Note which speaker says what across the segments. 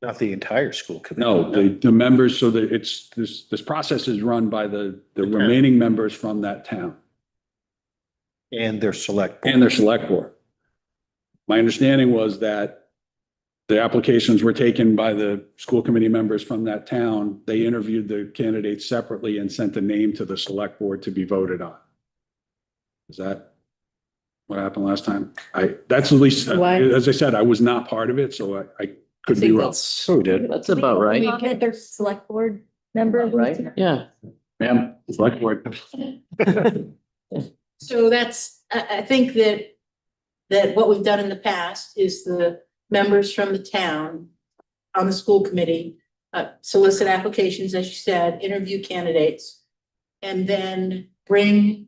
Speaker 1: Not the entire school committee.
Speaker 2: No, the, the members, so that it's, this, this process is run by the,
Speaker 1: The
Speaker 2: the
Speaker 1: town.
Speaker 2: remaining members from that town
Speaker 1: And their select. board.
Speaker 2: and their select board. My understanding was that the applications were taken by the school committee members from that town. They interviewed the candidates separately and sent the name to the select board to be voted on. Is that what happened last time? I, that's at least,
Speaker 3: Why?
Speaker 2: as I said, I was not part of it, so I, I could be
Speaker 4: think
Speaker 2: wrong.
Speaker 4: that's-
Speaker 5: So we did.
Speaker 4: That's about right,
Speaker 3: We get their select board member.
Speaker 4: right? Yeah.
Speaker 2: Ma'am, select board.
Speaker 6: So that's, I, I think that, that what we've done in the past is the members from the town on the school committee uh, solicit applications, as you said, interview candidates, and then bring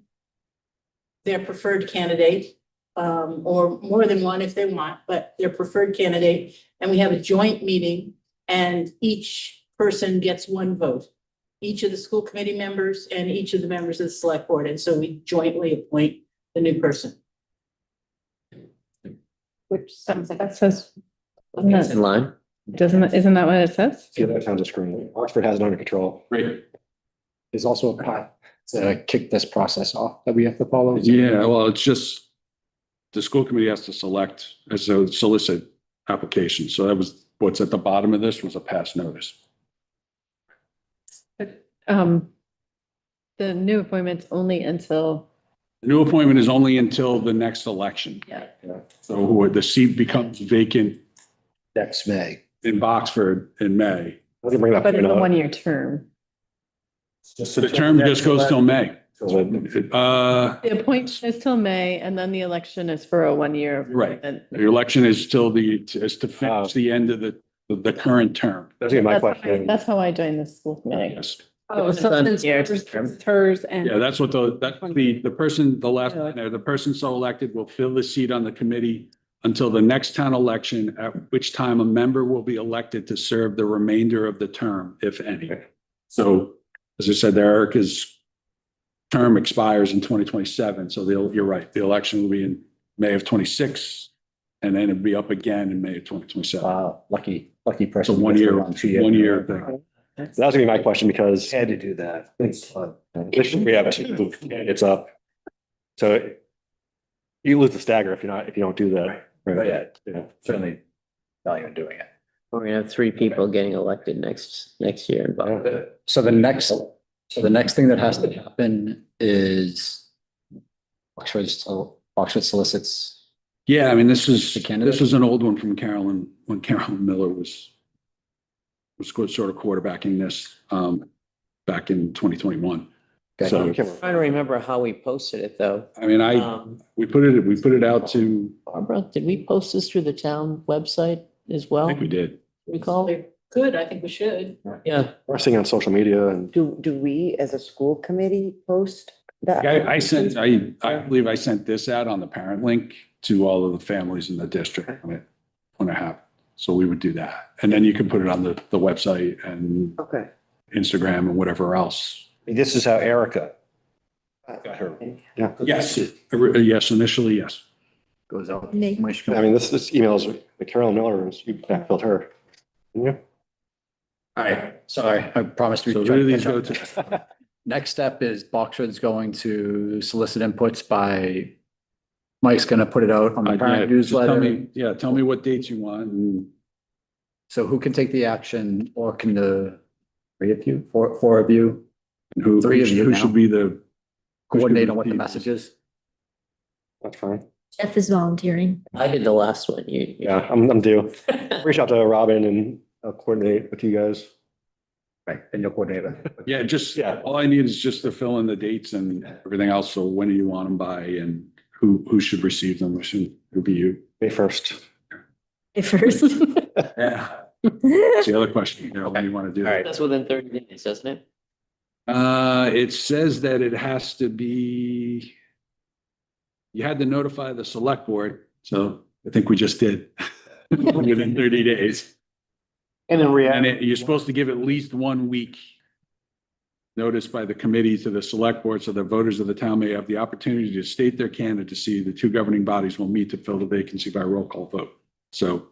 Speaker 6: their preferred candidate, um, or more than one if they want, but their preferred candidate, and we have a joint meeting, and each person gets one vote each of the school committee members and each of the members of the select board, and so we jointly appoint the new person.
Speaker 3: Which sounds like. That says,
Speaker 4: That's in line.
Speaker 3: doesn't, it- isn't that what it says?
Speaker 5: See, that sounds a screen. Oxford has it under control.
Speaker 2: Great.
Speaker 5: There's also a path to kick this process off that we have to follow.
Speaker 2: Yeah, well, it's just, the school committee has to select, as a solicit application. So that was, what's at the bottom of this was a pass notice.
Speaker 3: Um, the new appointment's only until,
Speaker 2: The new appointment is only until the next election.
Speaker 3: Yeah.
Speaker 5: Yeah.
Speaker 2: So who- the seat becomes vacant
Speaker 5: Next May.
Speaker 2: in Boxford in May.
Speaker 5: I was gonna bring that
Speaker 3: but
Speaker 5: point
Speaker 3: in a
Speaker 5: up.
Speaker 3: one-year term.
Speaker 2: The term just goes till May. Uh,
Speaker 3: The appointment is till May and then the election is for a one-year.
Speaker 2: Right.
Speaker 3: appointment.
Speaker 2: the election is till the, is to finish the end of the, the current term.
Speaker 5: That's gonna be my
Speaker 3: That's how I-
Speaker 5: question.
Speaker 3: that's how I joined the school committee.
Speaker 2: Yes.
Speaker 4: Oh, so then it's
Speaker 3: hers and.
Speaker 2: Yeah, that's what the, that's what the, the person, the last, line there, the person so elected will fill the seat on the committee until the next town election, at which time a member will be elected to serve the remainder of the term, if any. So, as I said, there, Erica's term expires in twenty twenty-seven, so they'll, you're right, the election will be in May of twenty-six, and then it'll be up again in May of twenty twenty-seven.
Speaker 5: Wow, Uh, lucky, lucky
Speaker 2: It's a
Speaker 5: person.
Speaker 2: one-year,
Speaker 5: Two-year.
Speaker 2: one-year thing.
Speaker 5: So that's gonna be my question because
Speaker 1: Had to do that.
Speaker 5: this- we have two candidates up. So you lose the stagger if you're not, if you don't do that.
Speaker 1: But yeah,
Speaker 5: Yeah.
Speaker 1: certainly value in doing it.
Speaker 4: We're gonna have three people getting elected next, next year in Buffalo.
Speaker 7: So the next, so the next thing that has to happen is Oxford, sol- Oxford solicits.
Speaker 2: Yeah, I mean, this is,
Speaker 7: The candidate?
Speaker 2: this is an old one from Carolyn, when Carolyn Miller was was sort of quarterbacking this um back in twenty twenty-one. So,
Speaker 4: Trying to remember how we posted it, though.
Speaker 2: I mean, I,
Speaker 4: Um,
Speaker 2: we put it, we put it out to,
Speaker 4: Barbara, did we post this through the town website as
Speaker 2: I
Speaker 4: well?
Speaker 2: think we did.
Speaker 4: Recall?
Speaker 6: Good, I think we should.
Speaker 4: Yeah.
Speaker 5: We're seeing on social media and
Speaker 8: Do, do we as a school committee post that?
Speaker 2: I, I sent, I, I believe I sent this out on the parent link to all of the families in the district when it, when it happened. So we would do that. And then you can put it on the, the website and
Speaker 8: Okay.
Speaker 2: Instagram and whatever else.
Speaker 1: This is how Erica got her.
Speaker 2: Yes, yes, initially, yes.
Speaker 7: Goes out.
Speaker 6: Mm-hmm.
Speaker 3: Nate.
Speaker 5: I mean, this, this emails, the Carolyn Miller, you backfilled her. didn't
Speaker 7: I, sorry, I promised.
Speaker 2: So
Speaker 7: we'd
Speaker 2: who
Speaker 7: try
Speaker 2: do
Speaker 7: to
Speaker 2: these
Speaker 7: catch
Speaker 2: go
Speaker 7: up.
Speaker 2: to?
Speaker 7: Next step is Boxford's going to solicit inputs by, Mike's gonna put it out on
Speaker 2: Uh,
Speaker 7: the
Speaker 2: yeah,
Speaker 7: parent
Speaker 2: just tell
Speaker 7: newsletter.
Speaker 2: me- Yeah, tell me what dates you want and
Speaker 7: So who can take the action or can the, three of you, four, four of you
Speaker 2: who,
Speaker 7: Three
Speaker 2: who
Speaker 7: of you
Speaker 2: who
Speaker 7: now.
Speaker 2: should be the.
Speaker 7: coordinate on what the
Speaker 2: people.
Speaker 7: message is?
Speaker 5: That's fine.
Speaker 9: Jeff is volunteering.
Speaker 4: I did the last one. You. you-
Speaker 5: Yeah, I'm, I'm due. Reach out to Robin and I'll coordinate with you guys.
Speaker 7: Right, and you'll coordinate it.
Speaker 2: Yeah, just,
Speaker 5: Yeah.
Speaker 2: all I need is just to fill in the dates and everything else. So when do you want them by and who, who should receive them? Who should, who be you?
Speaker 5: May first.
Speaker 9: First.
Speaker 2: Yeah. That's the other question. You know, when you want to do.
Speaker 5: All right.
Speaker 4: That's within thirty days, doesn't it?
Speaker 2: Uh, it says that it has to be. You had to notify the select board, so I think we just did. Within thirty days.
Speaker 5: And in
Speaker 2: And it- you're supposed to give at least one week notice by the committee to the select board so that voters of the town may have the opportunity to state their candidacy. The two governing bodies will meet to fill the vacancy by roll call vote. So